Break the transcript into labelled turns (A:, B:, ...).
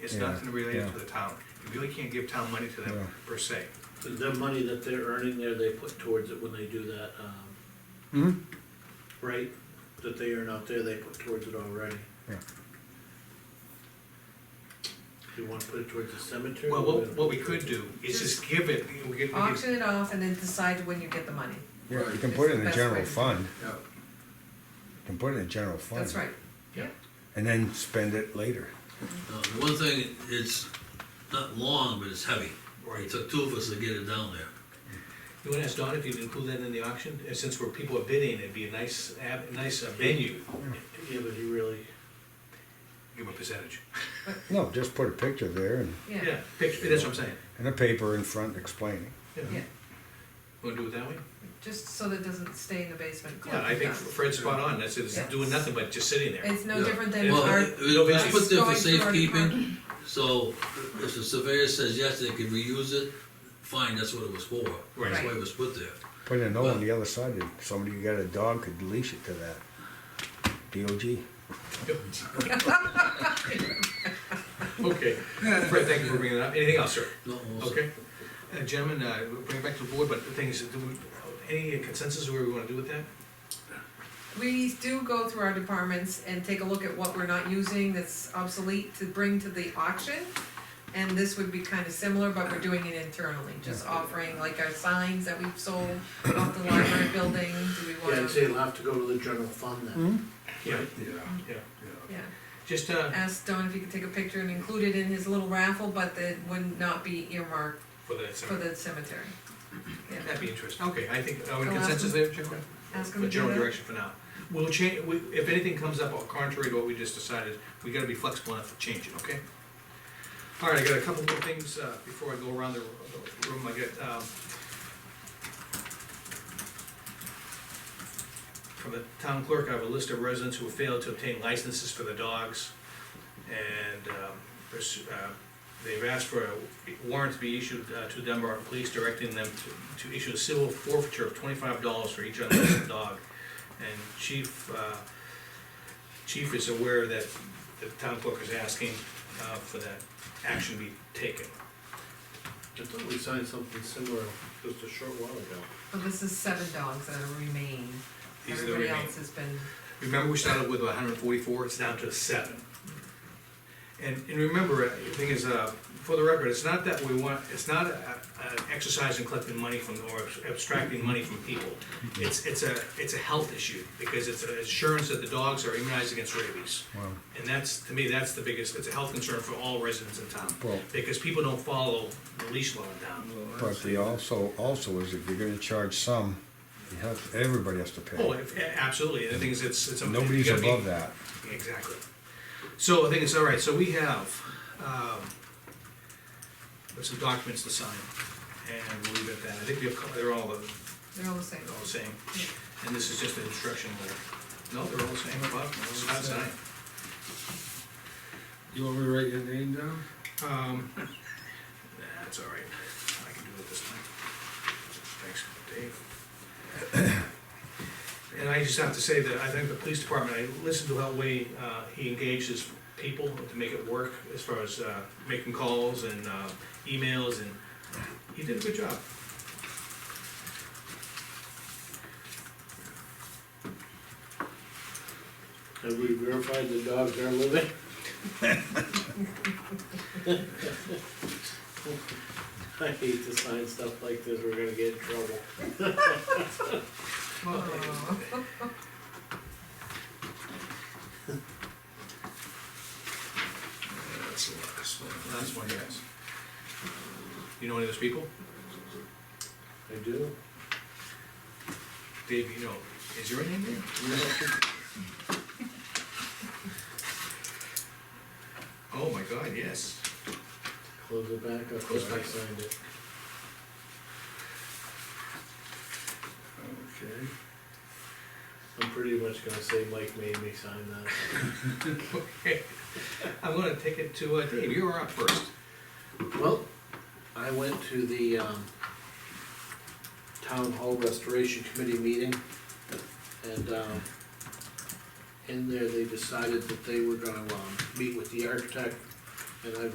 A: It's
B: Yeah,
A: nothing related
B: yeah.
A: to the town. You really can't give town money to
B: Yeah.
A: them per se.
C: The money that they're earning there, they put towards it when they do that, um,
B: Hmm?
C: right, that they earn out there, they put towards it already.
B: Yeah.
C: Do you wanna put it towards the cemetery?
A: Well, what, what we could do is just give it, we could, we could,
D: auction it off and then decide when you get the money.
B: Yeah, you can
D: It's
B: put it
D: the
B: in the
D: best way
B: general
D: to-
B: fund,
E: Yeah,
B: you can put it in the general fund.
D: That's right.
A: Yeah.
B: And then spend it later.
F: Uh, the one thing, it's not long, but it's heavy.
A: Right.
F: It took two of us to get it down there.
A: you wanna ask Don if you can include that in the auction? And since we're, people are bidding, it'd be a nice, ab- nice uh, venue,
C: Yeah, but he really,
A: give a percentage.
B: No, just put a picture there and,
D: Yeah,
A: Picture, that's what I'm saying.
B: and a paper in front explaining.
D: yeah,
A: Wanna do it that way?
D: just so that it doesn't stay in the basement.
A: Yeah, I
D: collecting
A: think
D: dust.
A: Fred's spot on, that's, it's
D: Yeah.
A: doing nothing but just sitting there.
D: It's no
F: Yeah.
D: different than
F: Well,
D: our.
F: it- it was
D: us going
F: put there for
D: through our
F: safekeeping,
D: department.
F: so if the surveyor says yes, they could reuse it, fine, that's what it was for. That's
A: Right.
F: why it was put there.
B: Put a note on the other side, if somebody who got a dog could leash it to that. DOG.
A: Okay, Fred, thank you for bringing it up. Anything else, sir?
F: No, also-
A: Okay. Uh, Gentlemen, uh, we'll bring it back to the board, but the thing is, do we, any consensus where we wanna do with that?
D: We do go through our departments and take a look at what we're not using that's obsolete to bring to the auction. And this would be kind of similar, but we're doing it internally, just offering like our signs that we've sold off the library building, do we
C: yeah, I'd
D: want
C: say
D: to?
C: it'll have to go to the general fund then.
A: Yeah,
E: yeah,
A: yeah.
E: yeah.
D: Yeah,
A: Just, uh,
D: ask Don if he could take a picture and include it in his little raffle, but that would not be earmarked
A: for the,
D: for the cemetery. Yeah,
A: that'd be interesting. Okay, I think, are we
D: I'll ask
A: consensus there, Chuck?
D: ask him
A: The
D: to do
A: general
D: that.
A: direction for now. We'll change, we, if anything comes up contrary to what we just decided, we gotta be flexible enough to change it, okay? All right, I got a couple more things, uh, before I go around the the room, I got, um, from the town clerk, I have a list of residents who have failed to obtain licenses for their dogs. And, um, pursu- uh, they've asked for a warrant to be issued uh, to Dunbar Police directing them to, to issue a civil forfeiture of twenty-five dollars for each unlicensed dog. And chief, uh, chief is aware that the town clerk is asking, uh, for that action be taken.
C: I thought we signed something similar just a short while ago.
D: But this is seven dogs that remain,
A: These are the
D: everybody
A: remaining.
D: else has been,
A: Remember, we started with hundred and forty-four, it's down to seven. And, and remember, uh, the thing is, uh, for the record, it's not that we want, it's not a, a- an exercise in collecting money from, or abstracting money from people. It's, it's a, it's a health issue, because it's an assurance that the dogs are immunized against rabies.
B: Wow.
A: And that's, to me, that's the biggest, it's a health concern for all residents in town,
B: Well-
A: because people don't follow the leash law down.
E: Oh,
B: But they also, also is if you're gonna charge some, you have, everybody has to
A: Oh,
B: pay.
A: if- absolutely, and the thing is, it's, it's. a- you
B: Nobody's
A: gotta be-
B: above that.
A: Exactly. So I think it's all right, so we have, um, there's some documents to sign, and we'll leave it at that. I think we have, co- they're all the,
D: they're all the same.
A: they're all the same. And this is just an instruction letter. No, they're all the same, Bob, it's not signed.
E: You want me to write your name down?
A: Um, that's all right, I can do it this time. Thanks, Dave. And I just have to say that I think the police department, I listened to how way, uh, he engaged his people to make it work as far as, uh, making calls and, uh, emails and he did a good job.
C: Have we verified the dogs are living? I hate to sign stuff like this, we're gonna get in trouble.
D: Oh.
A: That's the last one. Last one, yes. You know any of those people?
C: I do.
A: Dave, you know, is your name there? Oh, my God, yes.
C: Close it back up,
A: Close
C: there, I
A: back.
C: signed it.
E: Okay.
C: I'm pretty much gonna say Mike made me sign that.
A: Okay, I'm gonna take it to, uh, Dave, you're up first.
C: Well, I went to the, um, Town Hall Restoration Committee meeting, and, um, in there, they decided that they were gonna, um, meet with the architect, and I've